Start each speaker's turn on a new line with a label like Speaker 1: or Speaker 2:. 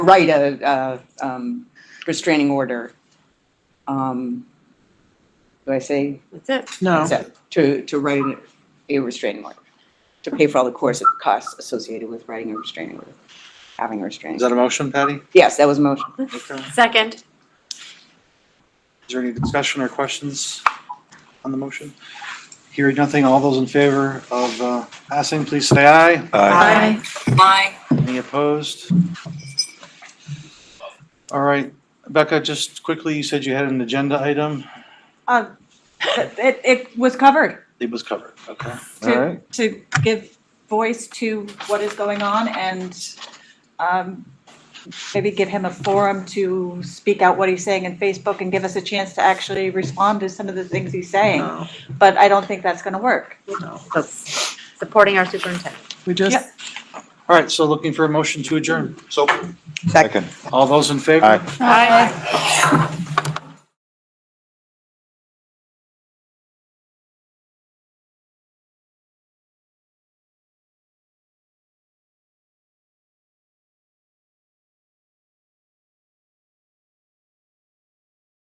Speaker 1: write a, a um, restraining order. Um, do I say
Speaker 2: That's it.
Speaker 3: No,
Speaker 1: so, to to write an- a restraining order to pay for all the course costs associated with writing a restraining order, having a restraining.
Speaker 3: is that a motion, Patty?
Speaker 1: yes, that was a motion.
Speaker 3: Okay. Is
Speaker 2: Second.
Speaker 3: there any discussion or questions on the motion? Hearing nothing, all those in favor of uh, passing, please say aye.
Speaker 2: Aye.
Speaker 1: Aye.
Speaker 3: Any opposed? All right, Becca, just quickly, you said you had an agenda item.
Speaker 4: Uh, It, it was covered
Speaker 3: It was covered, okay?
Speaker 5: All
Speaker 4: to,
Speaker 5: right.
Speaker 4: to give voice to what is going on and um, maybe give him a forum to speak out what he's saying in Facebook and give us a chance to actually respond to some of the things he's saying.
Speaker 6: No,
Speaker 4: But I don't think that's going to work.
Speaker 6: no.
Speaker 2: So, Supporting our superintendent.
Speaker 6: We just,
Speaker 3: All right, so looking for a motion to adjourn.
Speaker 5: Second.
Speaker 3: All those in favor?
Speaker 5: Aye.
Speaker 2: Aye.